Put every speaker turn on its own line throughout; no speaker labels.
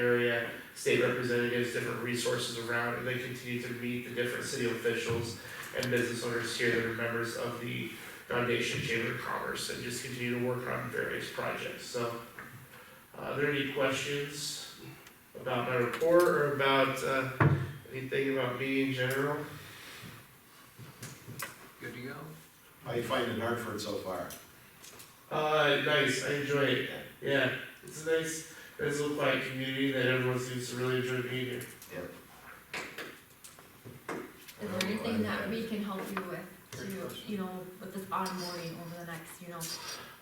at state representatives, different resources around, and they continue to meet the different city officials and business owners here that are members of the Foundation Chamber of Commerce, and just continue to work on various projects, so. Uh, are there any questions about my report or about, uh, anything about me in general?
Good to go?
How you finding Hartford so far?
Uh, nice. I enjoy it. Yeah, it's a nice, nice little quiet community that everyone seems to really enjoy being here.
Is there anything that we can help you with to, you know, with this onboarding over the next, you know,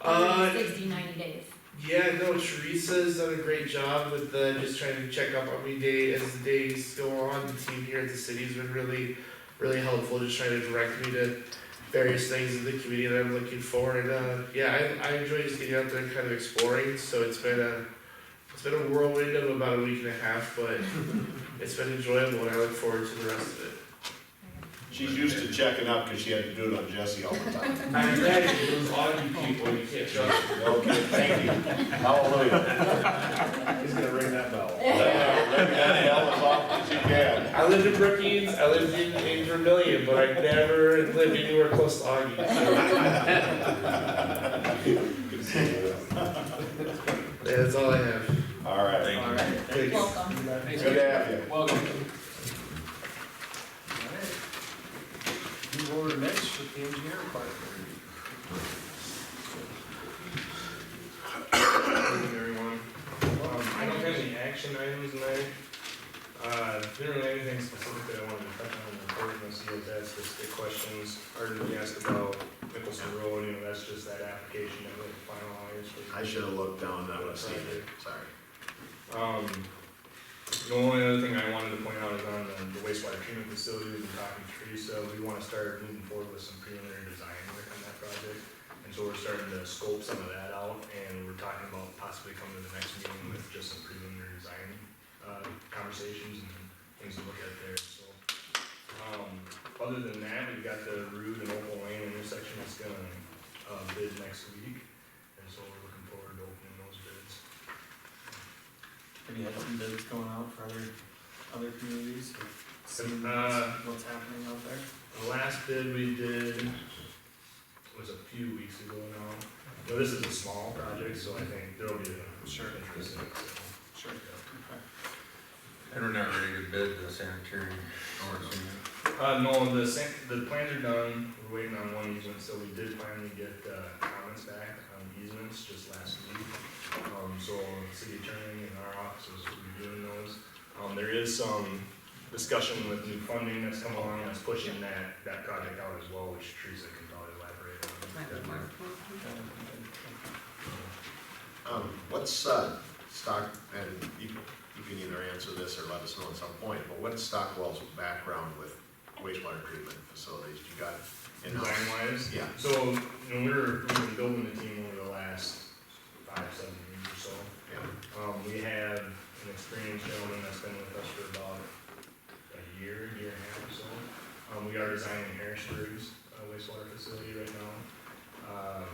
Uh,
60, 90 days?
yeah, no, Teresa's done a great job with uh, just trying to check up on me day as the days go on. The team here at the city's been really, really helpful, just trying to direct me to various things in the community that I'm looking for. And uh, yeah, I, I enjoy just getting out there and kind of exploring. So it's been a, it's been a whirlwind of about a week and a half, but it's been enjoyable, and I look forward to the rest of it.
She's used to checking up because she had to do it on Jesse all the time.
I imagine it was on you people, you can't trust them.
Okay, thank you. Hallelujah.
He's gonna ring that bell.
Let let that hell as often as you can.
I lived in Brookings, I lived in, in Vermillion, but I never lived anywhere close to Augie. Yeah, That's all I have.
All right.
All right,
Thanks.
Welcome.
thanks.
Good to have you.
Welcome. All right. Move over to Mitch with the engineer part.
Hey, everyone. Um, I don't have any action items tonight. Uh, didn't really have anything specific that I wanted to touch on in the report, unless you guys had specific questions. Arden, you asked about Nicholson Road, you know, that's just that application that we finalized.
I should have looked down, I would have seen it, sorry.
Um, the only other thing I wanted to point out is on the- the wastewater treatment facility, we've been talking to Teresa, we wanna start moving forward with some preliminary design work on that project. And so we're starting to scope some of that out, and we're talking about possibly coming to the next meeting with just some preliminary design, uh, conversations and things to look at there, so. Um, other than that, we've got the Rude and Opal Lane intersection that's gonna, uh, bid next week, and so we're looking forward to opening those bids.
Have you had some bids going out for other, other communities? Seeing
Uh,
what's happening out there?
The last bid we did was a few weeks ago now. Now, this is a small project, so I think there'll be a
Sure.
interest in it, so.
Sure.
And we're not ready to bid the sanitary or something.
Uh, no, the san- the plans are done, we're waiting on one easement, so we did finally get, uh, comments back on easements just last week. Um, so the city attorney and our office is reviewing those. Um, there is some discussion with new funding that's come along that's pushing that, that project out as well, which Teresa can probably elaborate on.
Um, what's, uh, Stock, and you, you can either answer this or let us know at some point, but what's Stockwell's background with wastewater treatment facilities? You got
Design
in-house?
wise,
Yeah,
So, you know, we were, we've been building the team over the last five, seven years or so.
yeah,
Um, we have an experienced gentleman that's been with us for about a year, year and a half or so. Um, we are designing Harrisburg's uh, wastewater facility right now. Um,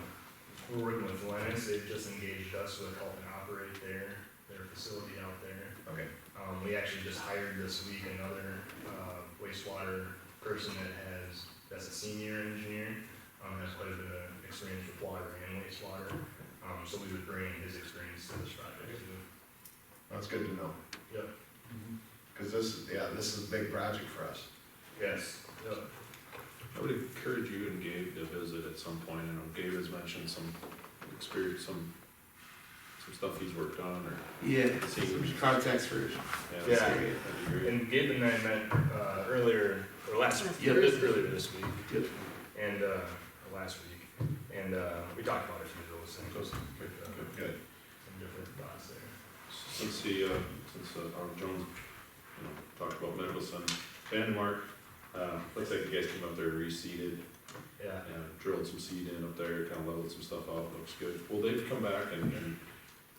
we're working with Lennox, they've just engaged us with helping operate their, their facility out there.
okay.
Um, we actually just hired this week another, uh, wastewater person that has, that's a senior engineer, um, has quite a bit of experience with water and wastewater. Um, so we would bring his experience to this project too.
That's good to know,
Yep,
Mm-hmm.
because this, is yeah, this is a big project for us.
yes, yep.
I would encourage you and Gabe to visit at some point, I know Gabe has mentioned some experience, some, some stuff he's worked on or
Yeah,
seen.
context first.
Yeah,
Yeah.
that'd be great.
And Gabe and I met, uh, earlier, or last,
Yep.
this- earlier this week.
Yep.
And, uh, or last week, and, uh, we talked about a few of those things,
Those-
with, uh,
okay.
Good.
some different thoughts there.
Since the, uh, since, uh, Arnold Jones, you know, talked about Mickelson, Vandemark, uh, looks like the guys came up there reseeded,
Yeah,
Yeah, drilled some seed in up there, kind of leveled some stuff out, looks good. Well, they've come back and, and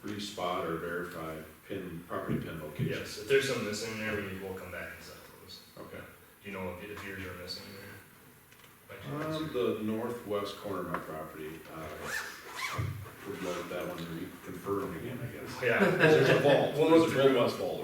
re-spot or verify pin, property pin locations.
yes, if there's some missing there, we will come back and settle those.
Okay.
Do you know if if yours are missing there? By chance?
Um, the northwest corner of my property, uh, would love that one to reconfirm again, I guess.
Yeah.
There's a vault,
We'll
there's
look
a
through.
northwest vault.